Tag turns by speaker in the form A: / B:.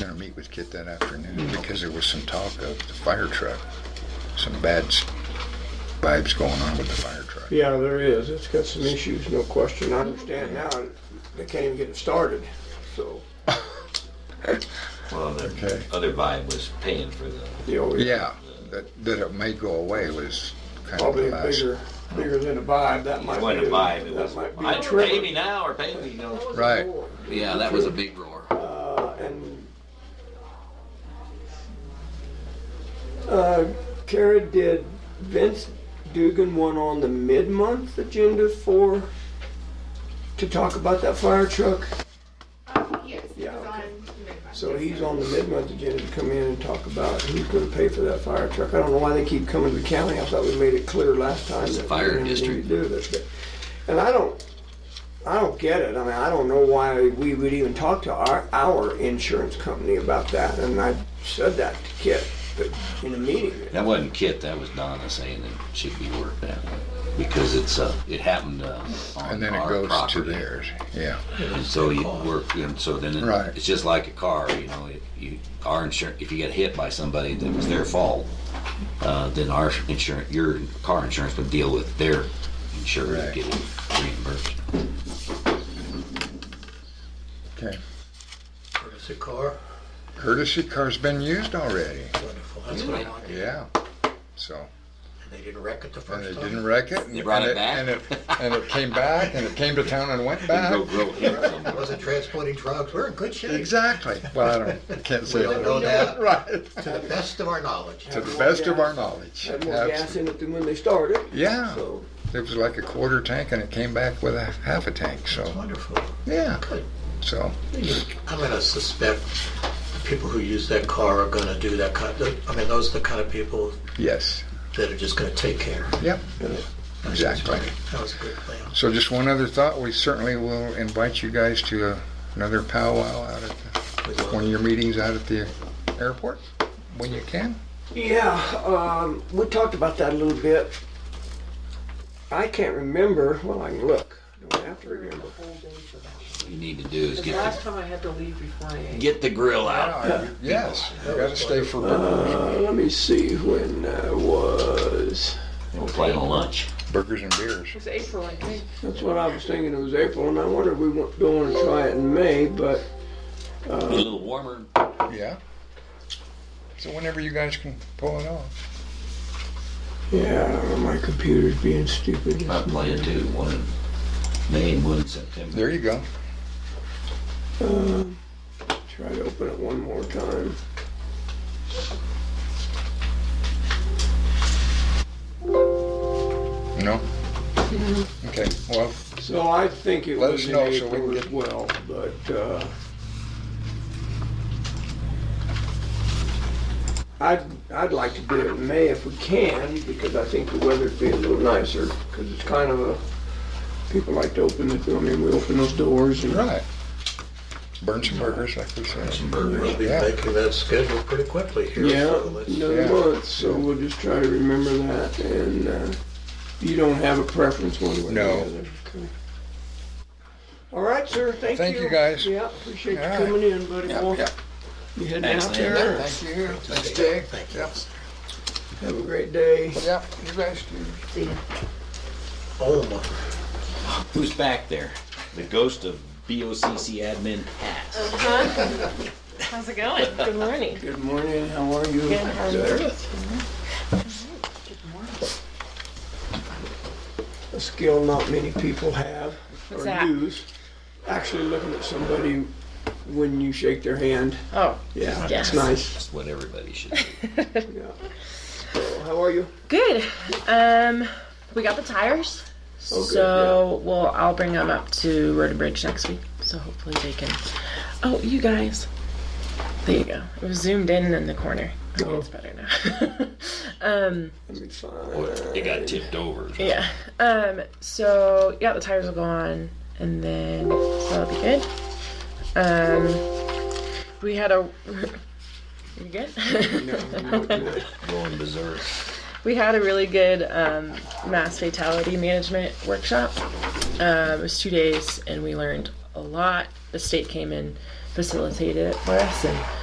A: Gonna meet with Kit that afternoon because there was some talk of the fire truck, some bad s- vibes going on with the fire truck.
B: Yeah, there is. It's got some issues, no question. I understand now. They can't even get it started. So,
C: Well, the
A: Okay.
C: other vibe was paying for the,
B: you know, it's
A: Yeah, that, that it may go away was kind of the
B: probably
A: last.
B: bigger, bigger than a vibe. That might
C: it
B: be.
C: wasn't a vibe, it was,
B: That might be a
C: "Hey, pay me
B: trigger.
C: now or pay me, you know.
A: Right,
D: Yeah, that was a big roar.
B: Uh, and, uh, Kara, did Vince Dugan want on the mid-month agenda for, to talk about that fire truck?
E: Um, yes, it
B: Yeah,
E: was on
B: okay.
E: mid-month.
B: So he's on the mid-month agenda to come in and talk about who's gonna pay for that fire truck. I don't know why they keep coming to the county. I thought we made it clear last time.
D: It's
B: that
D: the
B: we
D: fire
B: didn't need to
D: district.
B: Do this, but, and I don't, I don't get it. I mean, I don't know why we would even talk to our, our insurance company about that. And I said that to Kit, but in a meeting.
D: That wasn't Kit, that was Donna saying it should be worked that way. Because it's, uh, it happened, uh,
A: and
D: on
A: then it
D: our
A: goes to
D: property.
A: theirs, yeah.
D: And so you work, and so then
A: Right.
D: it- it's just like a car, you know, if you, our insurance, if you get hit by somebody that was their fault, uh, then our insurance, your car insurance would deal with their insurer
A: Right.
D: and get it reimbursed.
A: Okay.
F: Courtesy car,
A: Courtesy car's been used already,
F: wonderful, that's what I wanted.
A: yeah. So,
F: And they didn't wreck it the
A: and
F: first
A: it
F: time.
A: didn't wreck it.
D: They brought
A: and
D: it back?
A: And it, and it came back and it came to town and went back.
D: Go, go hit
F: It
D: somebody.
F: Wasn't transporting drugs, we're in good shape, to
A: Exactly. Well, I don't, can't say.
F: don't
A: that.
F: know that.
A: Right.
F: the best of our knowledge.
A: To the best of our knowledge.
B: Had more gas
A: Absolutely.
B: in it than when they started,
A: Yeah.
B: so.
A: It was like a quarter tank and it came back with a half a tank. So,
F: Wonderful,
A: yeah.
F: good.
A: So,
F: I'm gonna suspect the people who use that car are gonna do that kind, I mean, those are the kind of people
A: yes.
F: that are just gonna take care.
A: Yep.
F: That's
A: Exactly.
F: right. That was a good plan.
A: So, just one other thought. We certainly will invite you guys to a, another powwow out at
F: We
A: the, one of
F: love it.
A: your meetings out at the airport when you can.
B: Yeah, um, we talked about that a little bit. I can't remember, well, I can look, I don't have to remember.
D: You need to do is
G: Because
D: get
G: last
D: the,
G: time I had to leave before I ate.
D: get the grill out.
A: Yes. You got to stay for burgers.
B: Uh, let me see when that was.
D: We'll play on lunch.
A: burgers and beers.
G: It was April, I think.
B: That's what I was thinking. It was April, and I wonder if we wa- don't want to try it in May, but
D: Be a little warmer.
A: Yeah. So, whenever you guys can pull it off.
B: yeah, I don't know, my computer's being stupid.
D: I play it too, one in May and one in September.
A: There you go.
B: Try to open it one more time.
A: No? Okay. Well,
B: So I think it
A: Let
B: was
A: us
B: in
A: know so we can
B: April as
A: get-
B: well, but, uh, I'd, I'd like to do it in May if we can, because I think the weather'd be a little nicer, because it's kind of a, people like to open the, I mean, we open those doors and
A: right. Burn some burgers, like we said.
D: Some
F: We'll
D: burgers.
F: be
A: Yeah.
F: making that schedule pretty quickly here.
B: Yeah,
F: so let's-
B: another
A: yeah.
B: month, so we'll just try to remember that, and uh, you don't have a preference one way or
A: No.
B: the other. Okay. All right, sir, thank you.
A: Thank you, guys.
B: Yeah, appreciate
A: All
B: you
A: right.
B: coming in, buddy. Well,
A: yeah.
B: You heading out
D: Thanks,
B: there?
A: Thank you. Thanks, Jay.
F: Jay. Thank you.
A: Yep.
B: Have a great day.
A: Yep. You guys do.
F: Oh, my.
D: Who's back there? The ghost of BOCC admin Pat.
G: How's it going? Good morning.
B: Good morning, how are you?
G: Good, how are you?
B: Good. A skill not many people have or
G: that?
B: use. Actually looking at somebody when you shake their hand,
G: Oh,
B: yeah, it's
G: Yes.
B: nice.
D: That's what everybody should do.
B: Yeah. So, how are you?
G: good. Um, we got the tires.
B: Oh, good,
G: so we'll I'll bring them up to Road and Bridge next week. So hopefully they can. Oh, you guys. There you go. It was zoomed in in the corner. Okay,
B: Oh.
G: it's better now. um,
B: That'd be fine.
D: It got tipped over.
G: yeah. Um, so yeah, the tires will go on, and then so that'll be good. Um, we had a. You good?
D: Going berserk.
G: we had a really good um, mass fatality management workshop. Um, it was two days, and we learned a lot. The state came and facilitated it for us, and